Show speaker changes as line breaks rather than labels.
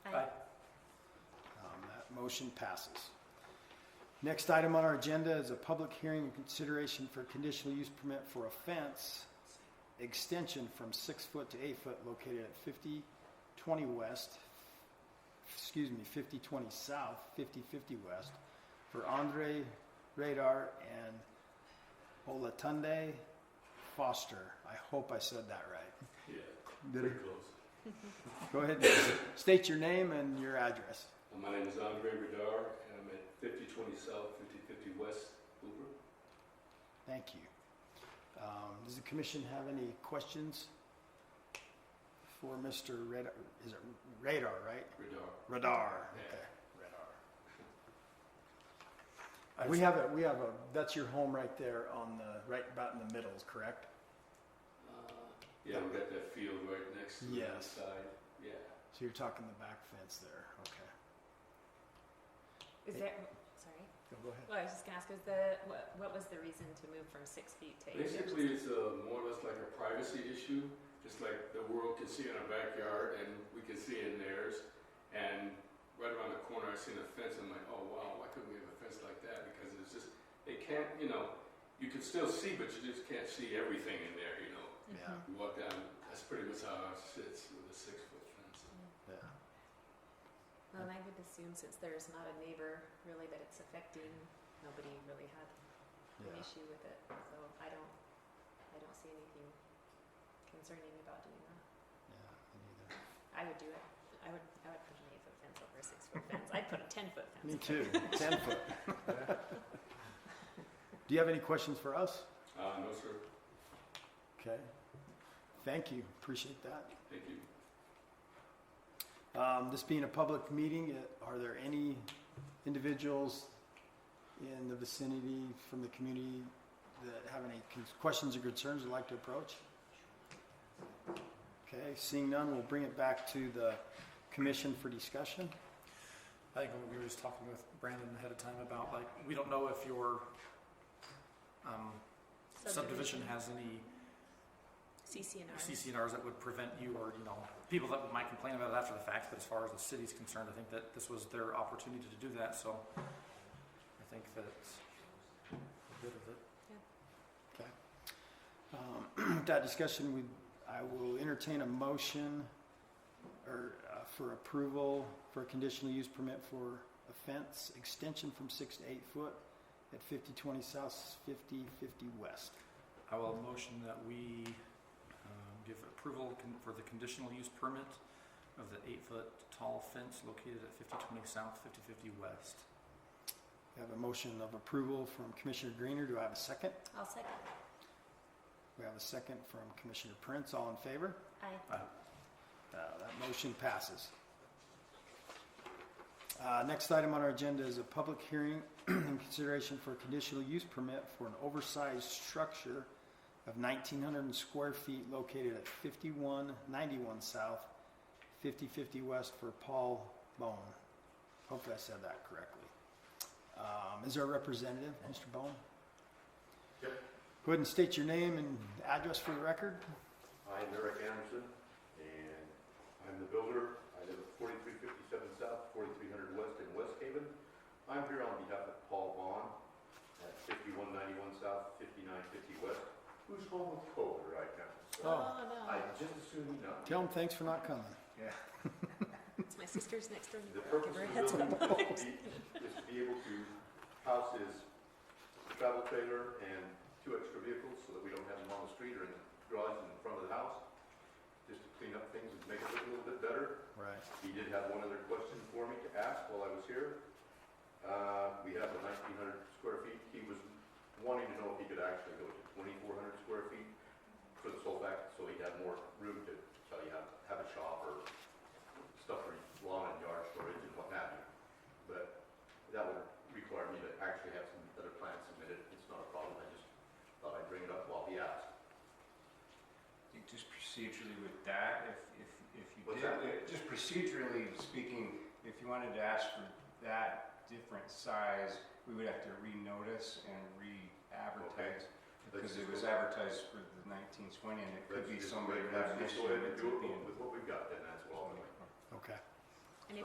Um, Motion passes. Next item on our agenda is a public hearing and consideration for conditional use permit for a fence extension from six foot to eight foot located at fifty twenty west, excuse me, fifty twenty south, fifty fifty west for Andre Radar and Olatunde Foster. I hope I said that right.
Yeah,
Did
pretty
it-
close.
Go ahead and state your name and your address.
Uh, My name is Andre Radar, and I'm at 5020 South, 5050 West Hoover.
Thank you. Um, Does the commission have any questions for Mr. Radar? Is it Radar, right?
Radar.
Radar. Okay, Radar. Uh, We have a, we have a, that's your home right there on the, right about in the middle, correct?
Uh, Yeah, we got that field right next to the
Yes.
side. Yeah.
So you're talking the back fence there, okay.
Is there, sorry,
Go- Go ahead.
well, I was just gonna ask, was the, what, what was the reason to move from six feet to eight? feet?
Basically, it's uh more or less like a privacy issue. It's like the world can see in our backyard, and we can see in theirs. And right around the corner, I seen a fence. I'm like, oh wow, why couldn't we have a fence like that? Because it's just, it can't, you know, you can still see, but you just can't see everything in there, you know.
Mm-hmm.
Yeah.
You walk down, that's pretty much how ours sits with a six foot fence.
Yeah.
Well, and I would assume since there's not a neighbor really that it's affecting, nobody really had an
Yeah.
issue with it, so I don't, I don't see anything concerning about doing that.
Yeah.
I would do it, I would, I would put an eight foot fence over a six foot fence, I'd put a ten foot
Me
fence.
too, ten foot. Do you have any questions for us?
Uh, no, sir,
Okay. Thank you, appreciate that.
thank you.
Um, This being a public meeting, uh, are there any individuals in the vicinity from the community that have any con- questions or concerns they'd like to approach? Okay, seeing none, we'll bring it back to the commission for discussion.
I think we were just talking with Brandon ahead of time about like, we don't know if your um, subdivision has any
CCNR.
CCNRs that would prevent you or, you know, people that might complain about it after the fact, but as far as the city's concerned, I think that this was their opportunity to do that, so I think that it's good of it.
Um, With that discussion, we, I will entertain a motion or uh, for approval for a conditional use permit for a fence extension from six to eight foot at fifty twenty south, fifty fifty west.
I will motion that we um, give approval con- for the conditional use permit of the eight-foot tall fence located at 5020 South, 5050 West.
I have a motion of approval from Commissioner Greener. Do I have a second?
I'll second,
We have a second from Commissioner Prince. All in favor?
aye.
Uh, That motion passes. Uh, Next item on our agenda is a public hearing in consideration for a conditional use permit for an oversized structure of 1,900 square feet located at 5191 South, 5050 West for Paul Bone. Hopefully I said that correctly. Um, Is there a representative, Mr. Bone?
Yep.
Go ahead and state your name and address for the record.
I'm Eric Anderson, and I'm the builder. I live at 4357 South, 4300 West in West Haven. I'm here on behalf of Paul Vaughn at 5191 South, 5950 West, who's home with COVID right now. So
Oh.
no,
I just assume you know.
Tell them thanks for not coming.
Yeah.
it's my sister's next door
The
neighbor, I'll
purpose of
give her a
the
heads
building
up.
is to be- is to be able to house his travel trailer and two extra vehicles so that we don't have them on the street or in the garage in front of the house, just to clean up things and make it look a little bit better.
Right.
He did have one other question for me to ask while I was here. Uh, we have the nineteen hundred square feet, he was wanting to know if he could actually go to twenty-four hundred square feet for the sole fact, so he'd have more room to, so he have, have a shop or stuff for lawn and yard storage and what have you. But that would require me to actually have some other plans submitted, it's not a problem, I just thought I'd bring it up while he asked.
I think just procedurally with that, if, if, if you
What's
did,
that?
just procedurally speaking, if you wanted to ask for that different size, we would have to renotice and re-advertise. Because it was advertised for the nineteen twenty and it could
Let's
be
just
somebody
wait,
who had an
let's just go
issue
ahead and
with it
do it
being.
with what we've got then, that's all.
Okay.